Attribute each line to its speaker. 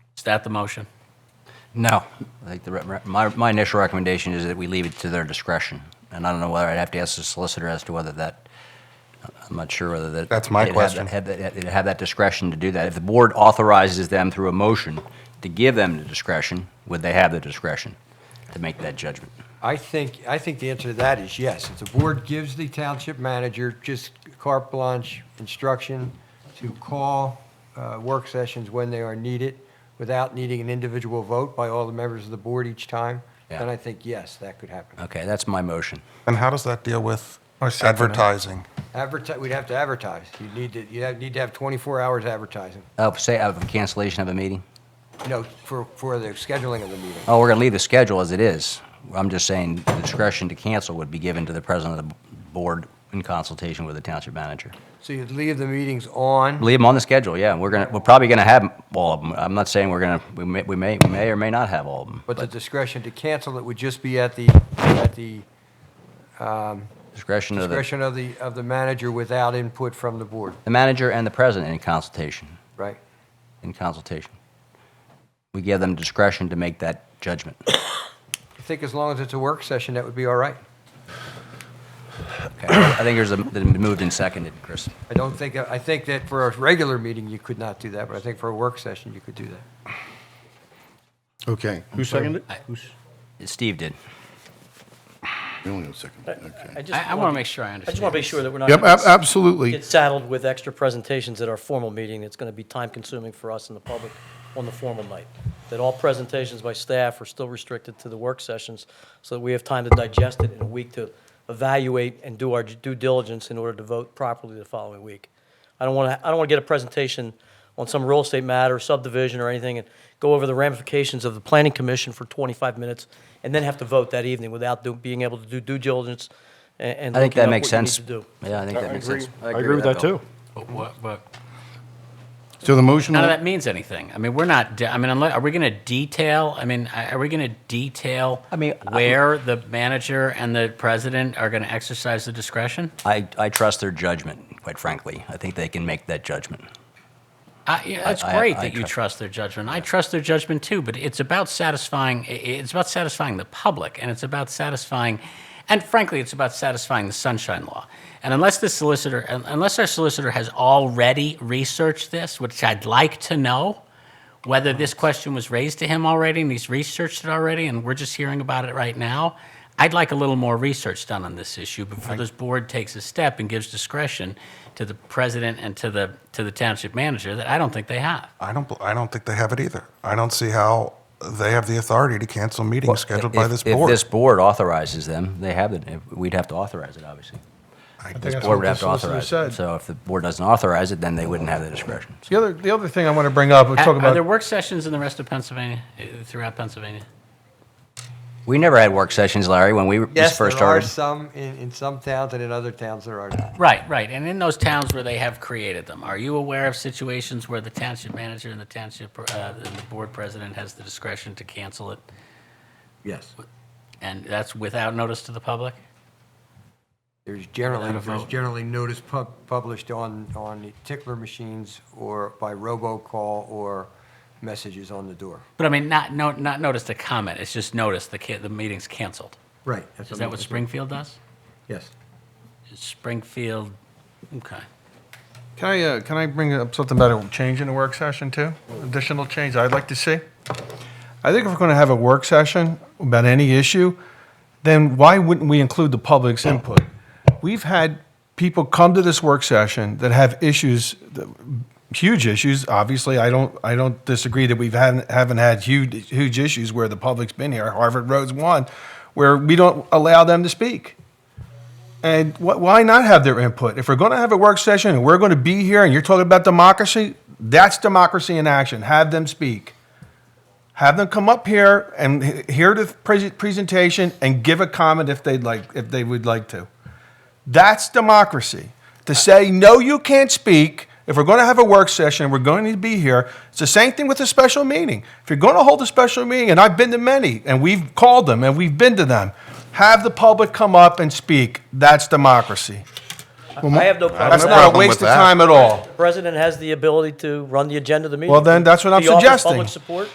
Speaker 1: Is that the motion?
Speaker 2: No. I think the, re- re- my, my initial recommendation is that we leave it to their discretion. And I don't know whether I'd have to ask the solicitor as to whether that, I'm not sure whether that.
Speaker 3: That's my
Speaker 2: they'd have
Speaker 3: question.
Speaker 2: that- Have, that- they'd have that discretion to do that. If the board authorizes them through a motion to give them the discretion, would they have the discretion to make that judgment?
Speaker 4: I think, I think the answer to that is yes. If the board gives the township manager just carte blanche instruction to call uh, work sessions when they are needed without needing an individual vote by all the members of the board each time, then
Speaker 2: Yeah. Uh,
Speaker 4: I think, yes, that could happen.
Speaker 2: Okay, that's my motion.
Speaker 3: And how does that deal with
Speaker 5: I second that.
Speaker 3: advertising?
Speaker 4: Advertise, we'd have to advertise. You'd need to, you'd have- need to have 24 hours advertising.
Speaker 2: Oh, say, of cancellation of a meeting?
Speaker 4: No, for, for the scheduling of the meeting.
Speaker 2: Oh, we're going to leave the schedule as it is. I'm just saying the discretion to cancel would be given to the president of the board in consultation with the township manager.
Speaker 4: So you'd leave the meetings on.
Speaker 2: Leave them on the schedule, yeah. We're gonna, we're probably gonna have all of them. I'm not saying we're gonna, we may, we may, we may or may not have all of them.
Speaker 4: But the discretion to cancel it would just be at the, at the
Speaker 2: Discretion of the,
Speaker 4: discretion of the, of the manager without input from the board,
Speaker 2: the manager and the president in consultation,
Speaker 4: right?
Speaker 2: in consultation. We give them discretion to make that judgment.
Speaker 4: I think as long as it's a work session, that would be all right.
Speaker 2: Okay. I think there's a, that moved and seconded, Chris.
Speaker 4: I don't think, I think that for a regular meeting, you could not do that, but I think for a work session, you could do that.
Speaker 5: Okay. Who seconded it? Who's?
Speaker 2: Steve did.
Speaker 5: We only have a second. Okay.
Speaker 1: I, I want to make sure I understand.
Speaker 6: I just want to make sure that we're not.
Speaker 5: Yep,
Speaker 6: gonna
Speaker 5: ab- absolutely.
Speaker 6: Get saddled with extra presentations at our formal meeting. It's going to be time-consuming for us and the public on the formal night. That all presentations by staff are still restricted to the work sessions, so that we have time to digest it in a week to evaluate and do our due diligence in order to vote properly the following week. I don't want to, I don't want to get a presentation on some real estate matter, subdivision or anything, and go over the ramifications of the planning commission for 25 minutes, and then have to vote that evening without do- being able to do due diligence a- and
Speaker 2: I think that
Speaker 6: looking up
Speaker 2: makes
Speaker 6: what you need
Speaker 2: sense.
Speaker 6: to do.
Speaker 2: Yeah, I think that makes sense.
Speaker 7: I agree with that
Speaker 2: Bill.
Speaker 7: too.
Speaker 1: But what- but
Speaker 5: So the motion,
Speaker 1: none of that
Speaker 5: on-
Speaker 1: means anything. I mean, we're not, de- I mean, unless, are we going to detail, I mean, are we going to detail
Speaker 2: I mean, I-
Speaker 1: where the manager and the president are going to exercise the discretion?
Speaker 2: I, I trust their judgment, quite frankly. I think they can make that judgment.
Speaker 1: I, yeah, that's
Speaker 2: I-
Speaker 1: great
Speaker 2: I
Speaker 1: that you
Speaker 2: trust-
Speaker 1: trust their judgment. I trust their judgment too, but it's about satisfying. i- It's about satisfying the public, and it's about satisfying, and frankly, it's about satisfying the sunshine law. And unless the solicitor, un- unless our solicitor has already researched this, which I'd like to know, whether this question was raised to him already and he's researched it already, and we're just hearing about it right now. I'd like a little more research done on this issue before this board takes a step and gives discretion to the president and to the to the township manager that I don't think they have.
Speaker 3: I don't, bel- I don't think they have it either. I don't see how they have the authority to cancel meetings scheduled by
Speaker 2: If-
Speaker 3: this
Speaker 2: If
Speaker 3: board.
Speaker 2: this board authorizes them, they have it. If- We'd have to authorize it, obviously.
Speaker 3: I
Speaker 8: think
Speaker 3: just-
Speaker 2: Board
Speaker 8: that's what
Speaker 2: would have
Speaker 8: the
Speaker 2: to authorize
Speaker 8: solicitor
Speaker 2: it.
Speaker 8: said.
Speaker 2: So if the board doesn't authorize it, then they wouldn't have the discretion.
Speaker 8: The other, the other thing I want to bring up, we're talking
Speaker 1: are there
Speaker 8: about,
Speaker 1: work sessions in the rest of Pennsylvania, uh, throughout Pennsylvania?
Speaker 2: We never had work sessions, Larry, when we just
Speaker 4: Yes, there
Speaker 2: first
Speaker 4: are
Speaker 2: started.
Speaker 4: some in, in some towns and in other towns there are not.
Speaker 1: Right, right. And in those towns where they have created them, are you aware of situations where the township manager and the township uh, and the board president has the discretion to cancel it,
Speaker 2: Yes.
Speaker 1: and that's without notice to the public?
Speaker 4: There's generally,
Speaker 1: Without a
Speaker 4: there's
Speaker 1: vote.
Speaker 4: generally notice pub, published on, on the tickler machines or by robocall or messages on the door.
Speaker 1: But I mean, not no, not notice the comment. It's just notice the ca- the meeting's canceled.
Speaker 4: Right.
Speaker 1: Is that what Springfield does?
Speaker 4: Yes.
Speaker 1: Springfield, okay.
Speaker 8: can I, uh, can I bring up something about a change in the work session too? Additional change I'd like to see? I think if we're going to have a work session about any issue, then why wouldn't we include the public's input? We've had people come to this work session that have issues, that- huge issues. Obviously, I don't, I don't disagree that we've haven't, haven't had huge, huge issues where the public's been here. Harvard Road's one, where we don't allow them to speak. And wh- why not have their input? If we're going to have a work session and we're going to be here and you're talking about democracy, that's democracy in action. Have them speak. Have them come up here and h- hear the pres- presentation and give a comment if they'd like, if they would like to. That's democracy. To say, no, you can't speak. If we're going to have a work session, we're going to be here. It's the same thing with a special meeting. If you're going to hold a special meeting, and I've been to many, and we've called them and we've been to them, have the public come up and speak. That's democracy.
Speaker 6: I have no problem. with
Speaker 8: That's not
Speaker 6: that.
Speaker 8: a
Speaker 3: problem
Speaker 8: waste
Speaker 3: with
Speaker 8: of
Speaker 3: that.
Speaker 8: time at all.
Speaker 6: President has the ability to run the agenda of the meeting.
Speaker 8: Well, then, that's what I'm
Speaker 6: He offers
Speaker 8: suggesting.
Speaker 6: public support.